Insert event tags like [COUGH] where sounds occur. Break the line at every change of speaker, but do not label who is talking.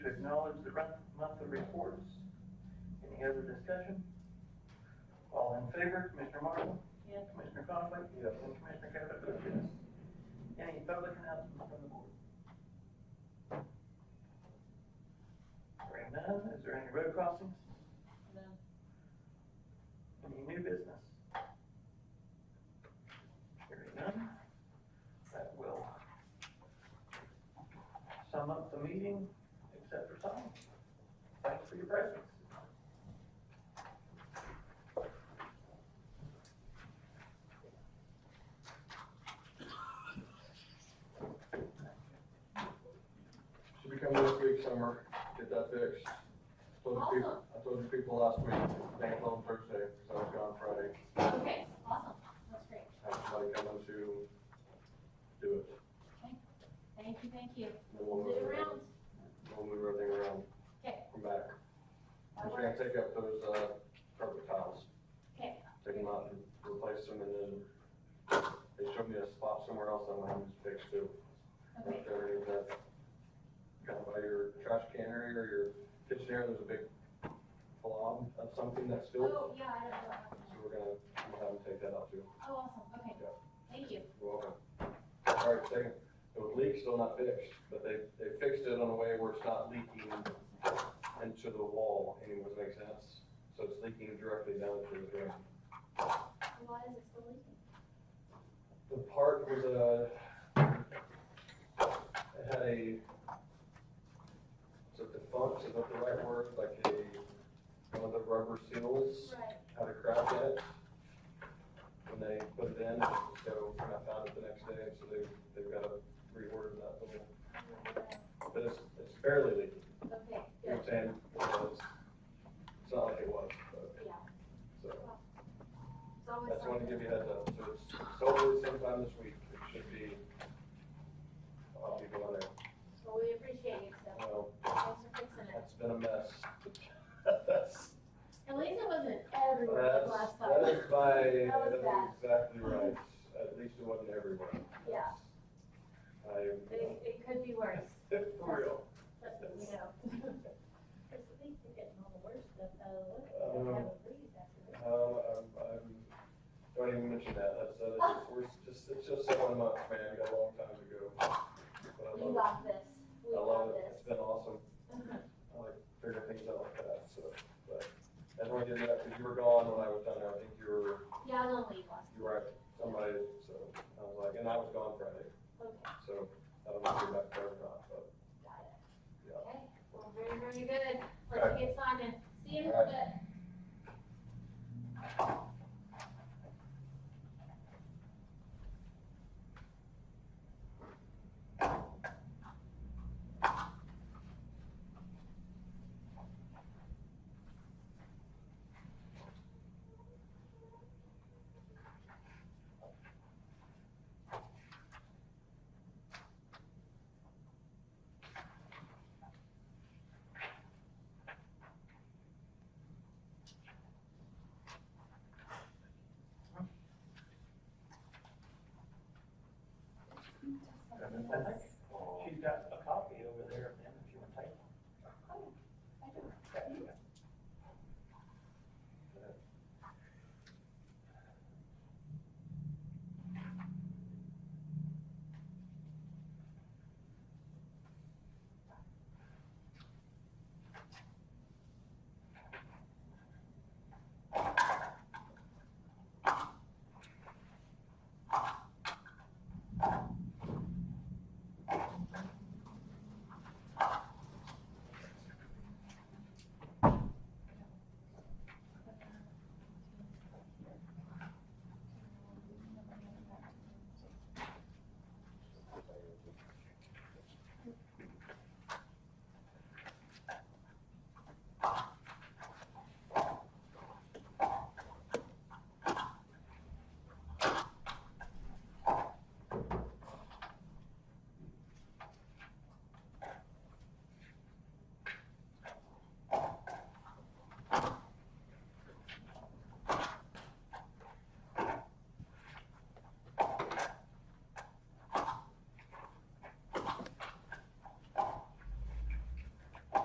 acknowledge the run- monthly reports. Any other discussion? All in favor, Commissioner Marshall?
Yes.
Commissioner Conley? Yes. And Commissioner Cavanaugh votes yes. Any public announcements from the board? Hearing none, is there any road crossings?
No.
Any new business? Hearing none, that will sum up the meeting, except for time. Thanks for your presence.
Should be coming this week somewhere, get that fixed. Told the people, I told the people last week, they closed Thursday, so I was gone Friday.
Okay, awesome, that's great.
Have somebody coming to do it.
Thank you, thank you.
Then we'll
Move
move
it
everything-
around.
We'll move everything around.
Okay.
From back.
That
We're
works.
gonna take up those, uh, carpet tiles.
Okay.
Take them out and replace them and then they showed me a spot somewhere else I'm gonna have to fix too.
Okay,
Right there, is that Kind of by your trash can area or your kitchen area, there's a big blob of something that's filled.
oh, yeah, I don't know what happened.
So we're gonna, we'll have them take that out too.
Oh, awesome, okay,
Yeah.
thank you.
You're welcome. All right, second, the leak's still not fixed, but they, they fixed it in a way where it's not leaking into the wall anyways, makes sense? So it's leaking directly down into the drain.
Why is it still leaking?
The part was a, it had a, is it defunct, is that the right word, like a, one of the rubber seals
Right.
had a crack in it. When they put it in, so when I found it the next day, so they, they've got to reorder that little, but it's, it's barely leaking,
Okay,
you know what
good,
I'm saying? It's it's not like it was, but,
yeah.
so.
It's always
I just wanted
something.
to give you a heads up, so it's, it's hopefully sometime this week, it should be, I'll be going there.
Well, we appreciate it, so
Well,
thanks for fixing it.
that's been a mess. That's,
At least it wasn't everywhere
that's,
last
that
time.
is my,
That was
that is
bad.
exactly right, at least it wasn't everywhere.
Yeah.
I,
But it, it could be worse,
for real.
that's what we know. [LAUGHS] Because I think they're getting all the worst stuff out of the way. They have
Um,
a breeze after this.
Um, I'm, I'm, don't even mention that, that's, uh, it's- we're just, it's just seven months, man, I got a long time to go. But I
We
love
got this,
it,
we
I love
got
it,
this.
it's been awesome, I like figuring things out like that, so, but, I only did that because you were gone when I was down there, I think you were,
[LAUGHS] Yeah, I was on leave last,
you were at somebody, so, I was like, and I was gone Friday,
okay,
so, I don't know if you're back there or not, but,
got it.
yeah.
Okay, well, very, very good. Let's get signed in. See you in a little bit.
And then-